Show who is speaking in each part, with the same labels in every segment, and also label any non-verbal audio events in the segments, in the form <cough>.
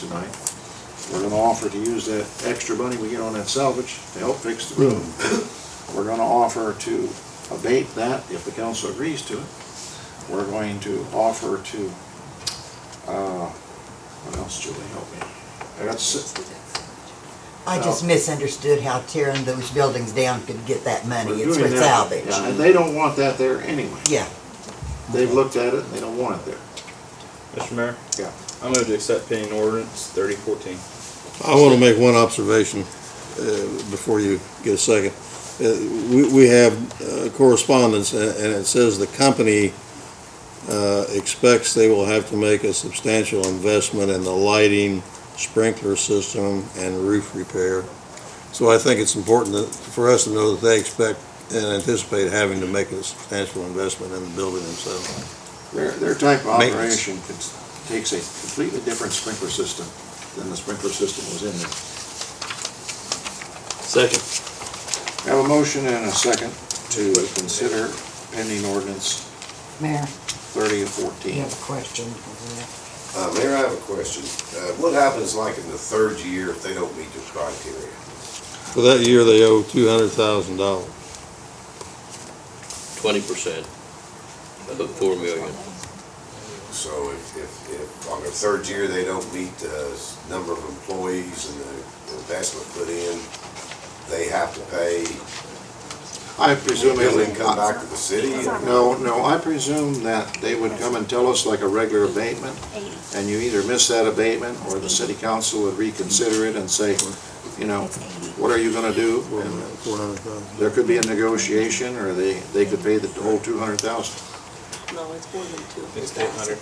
Speaker 1: tonight. We're gonna offer to use that extra money we get on that salvage to help fix the road. We're gonna offer to abate that if the council agrees to it. We're going to offer to, uh, what else, Julie, help me? I got, si-
Speaker 2: I just misunderstood how tearing those buildings down could get that money.
Speaker 1: we're
Speaker 2: It's for
Speaker 1: doing that.
Speaker 2: salvage.
Speaker 1: Yeah, and they don't want that there anyway.
Speaker 2: Yeah,
Speaker 1: They've looked at it and they don't want it there.
Speaker 3: Mr. Mayor?
Speaker 1: Yeah.
Speaker 3: I move to accept pending ordinance thirty fourteen.
Speaker 4: I want to make one observation uh, before you get a second. Uh, We we have uh, correspondence, a- and it says the company uh, expects they will have to make a substantial investment in the lighting, sprinkler system, and roof repair. So I think it's important that- for us to know that they expect and anticipate having to make a substantial investment in the building themselves.
Speaker 1: Their, their type of
Speaker 4: Maintenance.
Speaker 1: operation cons- takes a completely different sprinkler system than the sprinkler system was in there.
Speaker 3: Second.
Speaker 1: I Have a motion and a second to consider pending ordinance
Speaker 2: Mayor,
Speaker 1: thirty and fourteen.
Speaker 2: a question?
Speaker 5: Uh, Mayor, I have a question. Uh, What happens like in the third year if they don't meet the criteria?
Speaker 4: For that year, they owe $200,000.
Speaker 6: twenty percent of the four million.
Speaker 5: So if, if, if on their third year, they don't meet the s- number of employees and the investment put in, they have to pay,
Speaker 1: I presume it
Speaker 5: will
Speaker 1: would
Speaker 5: then come back to the city?
Speaker 1: No, no, I presume that they would come and tell us like a regular abatement, and you either miss that abatement, or the city council would reconsider it and say, you know, what are you gonna do? And
Speaker 4: $400,000.
Speaker 1: There could be a negotiation, or they, they could pay the whole two hundred thousand.
Speaker 7: No, it's more than two.
Speaker 3: It's eight hundred.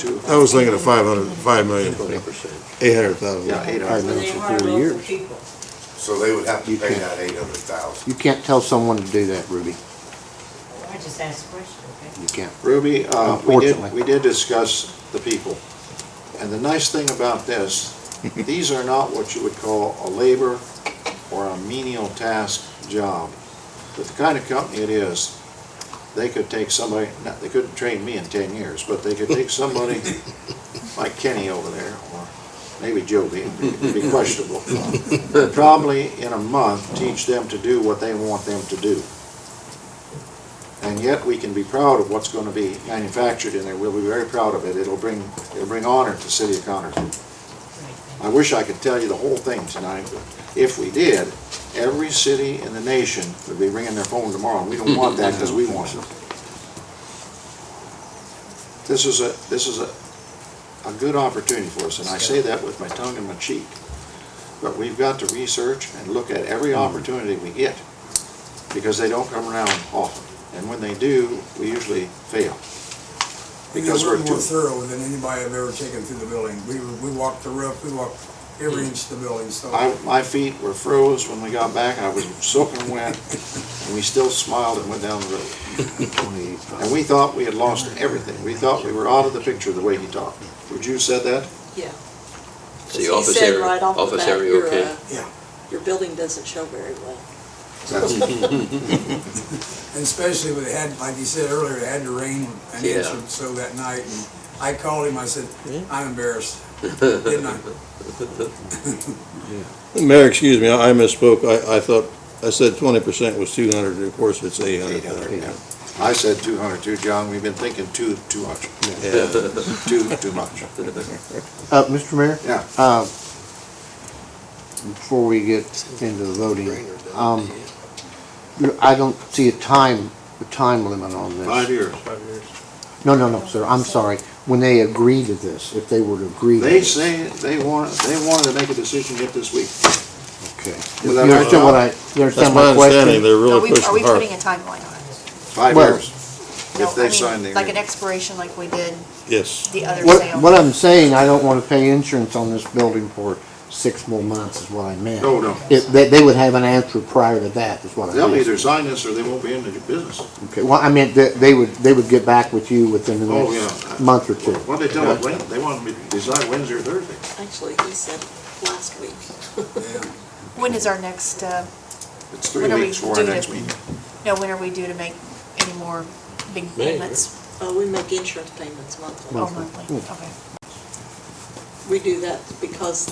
Speaker 1: Two.
Speaker 4: I was thinking of 500, 5 million. Eight hundred thousand.
Speaker 1: Yeah, 800,000.
Speaker 8: But they hire local people.
Speaker 5: So they would have to
Speaker 8: You
Speaker 5: pay
Speaker 8: can't.
Speaker 5: that eight hundred thousand.
Speaker 8: You can't tell someone to do that, Ruby.
Speaker 7: I just asked a question, okay?
Speaker 1: <laughs>
Speaker 8: You can't.
Speaker 1: Ruby, uh, we did,
Speaker 8: Unfortunately.
Speaker 1: we did discuss the people. And the nice thing about this, these are not what you would call a labor or a menial task job. But the kind of company it is, they could take somebody, not, they couldn't train me in ten years, but they could take somebody like Kenny over there, or maybe Joby, it'd be questionable. and Probably in a month, teach them to do what they want them to do. And yet, we can be proud of what's gonna be manufactured in there, we'll be very proud of it, it'll bring, it'll bring honor to the city of Connersville. I wish I could tell you the whole thing tonight, but if we did, every city in the nation would be ringing their phone tomorrow, and we don't want that, because we want it. This is a, this is a, a good opportunity for us, and I say that with my tongue in my cheek. But we've got to research and look at every opportunity we get, because they don't come around often. And when they do, we usually fail. Because we're
Speaker 9: more
Speaker 1: too,
Speaker 9: thorough than anybody I've ever taken through the building. We, we walked the roof, we walked every
Speaker 5: Hmm.
Speaker 9: inch of the building, so.
Speaker 1: I, my feet were froze when we got back, I was soaking wet, and we still smiled and went down the road. And we thought we had lost everything, we thought we were out of the picture the way he talked. Would you said that?
Speaker 7: Yeah.
Speaker 6: So your
Speaker 7: He
Speaker 6: office
Speaker 7: said
Speaker 6: area,
Speaker 7: right off the
Speaker 6: office
Speaker 7: bat,
Speaker 6: area,
Speaker 7: your,
Speaker 6: okay?
Speaker 7: uh,
Speaker 9: Yeah.
Speaker 7: Your building doesn't show very well.
Speaker 1: That's-
Speaker 9: And especially when it had, like you said earlier, it had to rain an inch
Speaker 6: Yeah.
Speaker 9: or so that night. And I called him, I said, I'm embarrassed. Didn't I?
Speaker 4: Mayor, excuse me, I I misspoke. I, I thought, I said twenty percent was two hundred, and of course, it's eight hundred.
Speaker 1: 800, yeah. I said 200 too, John, we've been thinking too, too much,
Speaker 4: Yeah,
Speaker 1: too, too much.
Speaker 8: Uh, Mr. Mayor?
Speaker 1: Yeah.
Speaker 8: Uh, before we get into the voting, um, I don't see a time, a time limit on this.
Speaker 1: Five years.
Speaker 3: Five years.
Speaker 8: No, no, no, sir, I'm sorry. When they agree to this, if they were to agree to
Speaker 1: They
Speaker 8: this.
Speaker 1: say, they want, they wanted to make a decision yet this week.
Speaker 8: Okay.
Speaker 1: Is
Speaker 8: You
Speaker 1: that
Speaker 8: understand
Speaker 1: right?
Speaker 8: what I, you
Speaker 4: That's
Speaker 8: understand
Speaker 4: my
Speaker 8: my
Speaker 4: understanding,
Speaker 8: question?
Speaker 4: they're
Speaker 10: Are
Speaker 4: really
Speaker 10: we, are we
Speaker 4: pushing hard.
Speaker 10: putting a timeline on it?
Speaker 1: Five
Speaker 8: Well-
Speaker 1: years,
Speaker 10: No,
Speaker 1: if
Speaker 10: I
Speaker 1: they
Speaker 10: mean,
Speaker 1: sign the
Speaker 10: Like an
Speaker 1: agreement.
Speaker 10: expiration like we did
Speaker 4: Yes.
Speaker 10: the other
Speaker 8: What,
Speaker 10: sale?
Speaker 8: what I'm saying, I don't wanna pay insurance on this building for six more months is what I meant.
Speaker 1: No, no.
Speaker 8: If, they, they would have an answer prior to that, is what I meant.
Speaker 1: They'll either sign this or they won't be in the business.
Speaker 8: Okay, well, I meant that they would, they would get back with you within the
Speaker 1: Oh,
Speaker 8: next
Speaker 1: yeah.
Speaker 8: month or two.
Speaker 1: What'd they tell us, Wed- they wanted me to decide Wednesday or Thursday.
Speaker 7: Actually, he said last week.
Speaker 10: When is our next, uh,
Speaker 1: It's three
Speaker 10: When are we
Speaker 1: weeks for our
Speaker 10: due
Speaker 1: next
Speaker 10: to-
Speaker 1: meeting.
Speaker 10: no, when are we due to make any more big
Speaker 6: May,
Speaker 7: Uh,
Speaker 10: payments?
Speaker 7: Oh, we make insurance payments monthly.
Speaker 10: Oh, monthly, okay.
Speaker 7: we do that because